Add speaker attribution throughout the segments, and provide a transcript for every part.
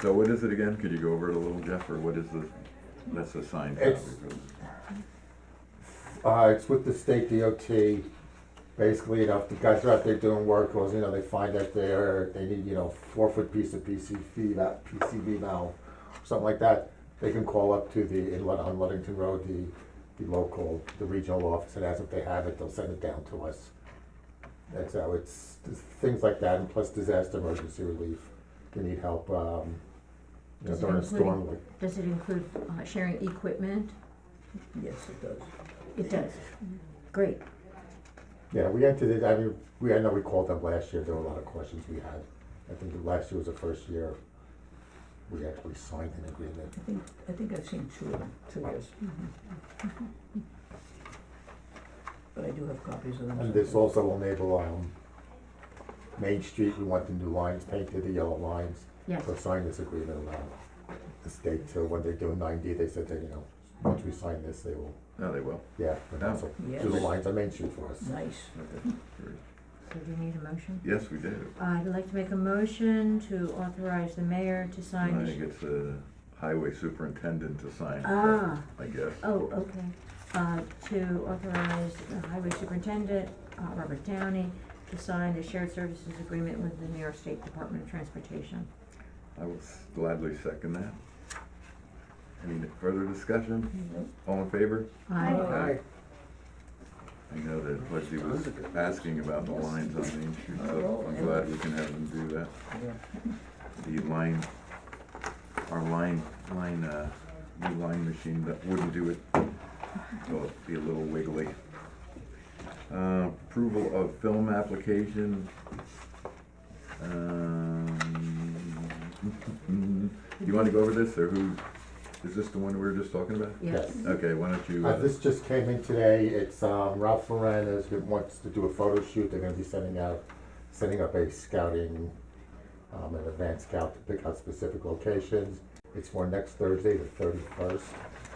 Speaker 1: So what is it again? Could you go over it a little, Jeff, or what is the, that's the sign copy?
Speaker 2: It's- Uh, it's with the state DOT. Basically, you know, if the guys are out there doing work, or you know, they find that they're they need you know four foot piece of PCV that PCV valve, something like that. They can call up to the in Lud- on Ludington Road the the local the regional office, and as if they have it, they'll send it down to us. That's how it's there's things like that, and plus disaster emergency relief. They need help um, you know,
Speaker 3: Does it
Speaker 2: during a
Speaker 3: include-
Speaker 2: storm. like-
Speaker 3: Does it include uh, sharing equipment?
Speaker 4: Yes, it does.
Speaker 3: It does. Great.
Speaker 2: Yeah, we entered it, I mean, we, I know we called them last year, there were a lot of questions we had. I think the last year was the first year we actually signed an agreement.
Speaker 4: I think, I think I've seen two of them, two years. But I do have copies of them.
Speaker 2: And this
Speaker 4: somewhere.
Speaker 2: also will enable, um, Main Street, we want the new lines painted, the yellow lines.
Speaker 3: Yes.
Speaker 2: So sign this agreement, um, the state till when they're doing ninety, they said that, you know, once we sign this, they will,
Speaker 1: No, Oh, they will.
Speaker 2: yeah, but also do the
Speaker 4: Yes.
Speaker 2: lines on Main Street for us.
Speaker 4: Nice.
Speaker 1: Okay, great.
Speaker 3: So do you need a motion?
Speaker 1: Yes, we do.
Speaker 3: I'd like to make a motion to authorize the mayor to
Speaker 1: I
Speaker 3: sign.
Speaker 1: think it's the highway superintendent to sign,
Speaker 3: Ah,
Speaker 1: I guess.
Speaker 3: oh, okay. Uh, to authorize the highway superintendent, uh, Robert Downey, to sign the shared services agreement with the New York State Department of Transportation.
Speaker 1: I will s- gladly second that. Any further discussion? All in favor?
Speaker 3: I,
Speaker 1: I know that Leslie was asking about the lines on Main Street, so I'm glad we can have them do that.
Speaker 4: Yeah.
Speaker 1: The line, our line, line, uh, new line machine that wouldn't do it, so it'd be a little wiggly. Uh, approval of film application. Um, you wanna go over this, or who, is this the one we were just talking about?
Speaker 3: yes,
Speaker 1: Okay, why don't you,
Speaker 2: Uh,
Speaker 1: uh,
Speaker 2: this just came in today, it's, um, Ralph Lauren is, wants to do a photo shoot, they're gonna be sending out, setting up a scouting, um, an advanced scout to pick out specific locations. It's for next Thursday, the thirty-first,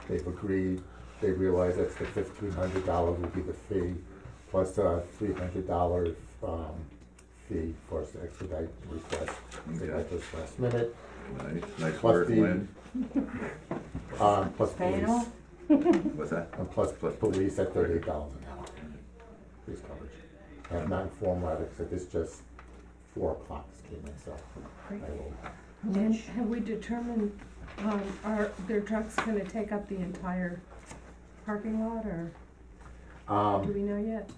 Speaker 2: they've agreed, they realize that's the fifteen hundred dollar would be the fee, plus a three hundred dollar, um, fee for us to expedite the request, they got
Speaker 1: Okay.
Speaker 2: this last minute,
Speaker 1: nice, nice
Speaker 2: plus
Speaker 1: work,
Speaker 2: the-
Speaker 1: Lynn,
Speaker 2: um, plus
Speaker 3: Pay it
Speaker 2: police.
Speaker 3: off?
Speaker 1: what's that?
Speaker 2: And plus, plus police at thirty-eight dollars an hour. Police coverage. I have not informed Radix that this just four o'clock this came in, so I will,
Speaker 5: And have we determined, um, are their trucks gonna take up the entire parking lot, or do
Speaker 2: um,
Speaker 5: we know yet?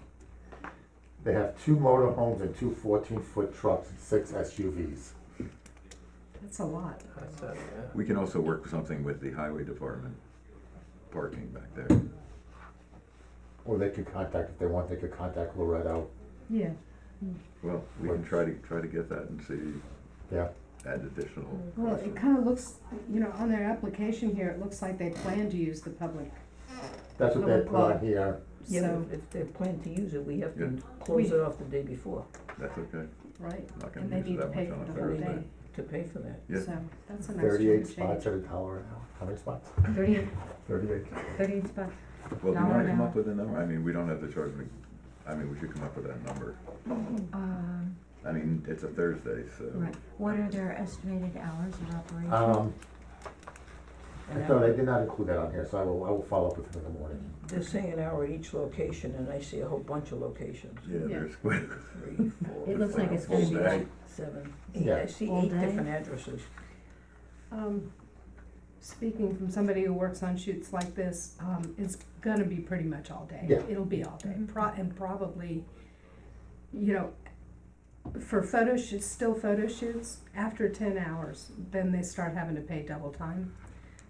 Speaker 2: they have two motorhomes and two 14 foot trucks and six SUVs.
Speaker 5: That's a lot.
Speaker 1: We can also work something with the highway department parking back there.
Speaker 2: Or they could contact, if they want, they could contact Loretto,
Speaker 5: Yeah.
Speaker 1: Well, we can try to, try to get that and see,
Speaker 2: yeah.
Speaker 1: add additional.
Speaker 5: Well, it
Speaker 1: questions.
Speaker 5: kinda looks, you know, on their application here, it looks like they plan to use the public,
Speaker 2: That's what they put on here.
Speaker 4: Yeah,
Speaker 5: so,
Speaker 4: but if they plan to use it, we have to
Speaker 1: Yeah.
Speaker 4: close it off the day before
Speaker 1: That's okay,
Speaker 5: right,
Speaker 1: not gonna
Speaker 5: and they
Speaker 1: use it
Speaker 5: need to
Speaker 1: that
Speaker 5: pay
Speaker 1: much on
Speaker 5: for
Speaker 1: a
Speaker 5: the whole
Speaker 1: Thursday.
Speaker 5: day,
Speaker 4: to pay for that.
Speaker 1: Yeah.
Speaker 5: so, that's a nice
Speaker 2: Thirty-eight
Speaker 5: change.
Speaker 2: spots at a dollar an hour. How many spots?
Speaker 3: thirty,
Speaker 2: Thirty-eight.
Speaker 3: thirty spots.
Speaker 1: Well, do you
Speaker 3: Dollar
Speaker 1: wanna
Speaker 3: an
Speaker 1: come
Speaker 3: hour.
Speaker 1: up with a number? I mean, we don't have to charge me, I mean, we should come up with that number.
Speaker 3: Um,
Speaker 1: I mean, it's a Thursday, so
Speaker 3: right. What are their estimated hours of operation?
Speaker 2: Um, I
Speaker 4: An
Speaker 2: thought I
Speaker 4: hour,
Speaker 2: did not include that on here, so I will, I will follow up with them in the morning.
Speaker 4: they're saying an hour at each location, and I see a whole bunch of locations.
Speaker 1: yeah,
Speaker 5: Yeah.
Speaker 1: there's quite.
Speaker 4: Three, four.
Speaker 3: It looks like it's
Speaker 4: five,
Speaker 3: gonna be
Speaker 4: six,
Speaker 3: like-
Speaker 4: Seven, eight,
Speaker 2: Yeah.
Speaker 4: I see
Speaker 3: All
Speaker 4: eight
Speaker 3: day?
Speaker 4: different addresses.
Speaker 5: Um, speaking from somebody who works on shoots like this, um, it's gonna be pretty much all day.
Speaker 2: Yeah.
Speaker 5: It'll be all day, pro- and probably, you know, for photo shoots, still photo shoots, after ten hours, then they start having to pay double time.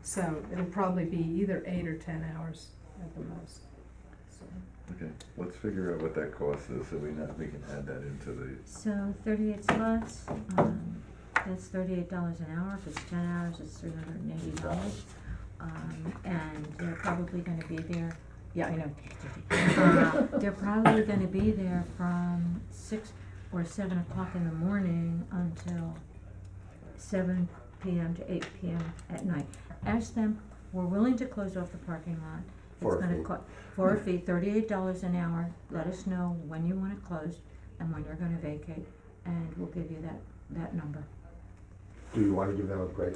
Speaker 5: So it'll probably be either eight or ten hours at the most. So,
Speaker 1: Okay, let's figure out what that cost is, so we know, we can add that into the,
Speaker 3: So thirty-eight spots, um, that's thirty-eight dollars an hour, if it's ten hours, it's three hundred and eighty dollars. Um, and they're probably gonna be there, yeah, I know. Uh, They're probably gonna be there from six or seven o'clock in the morning until seven PM to eight PM at night. Ask them, we're willing to close off the parking lot.
Speaker 2: For a
Speaker 3: It's gonna
Speaker 2: fee.
Speaker 3: cost, for a fee, thirty-eight dollars an hour, let us know when you want it closed and when you're gonna vacate, and we'll give you that, that number.
Speaker 2: do you wanna give them a break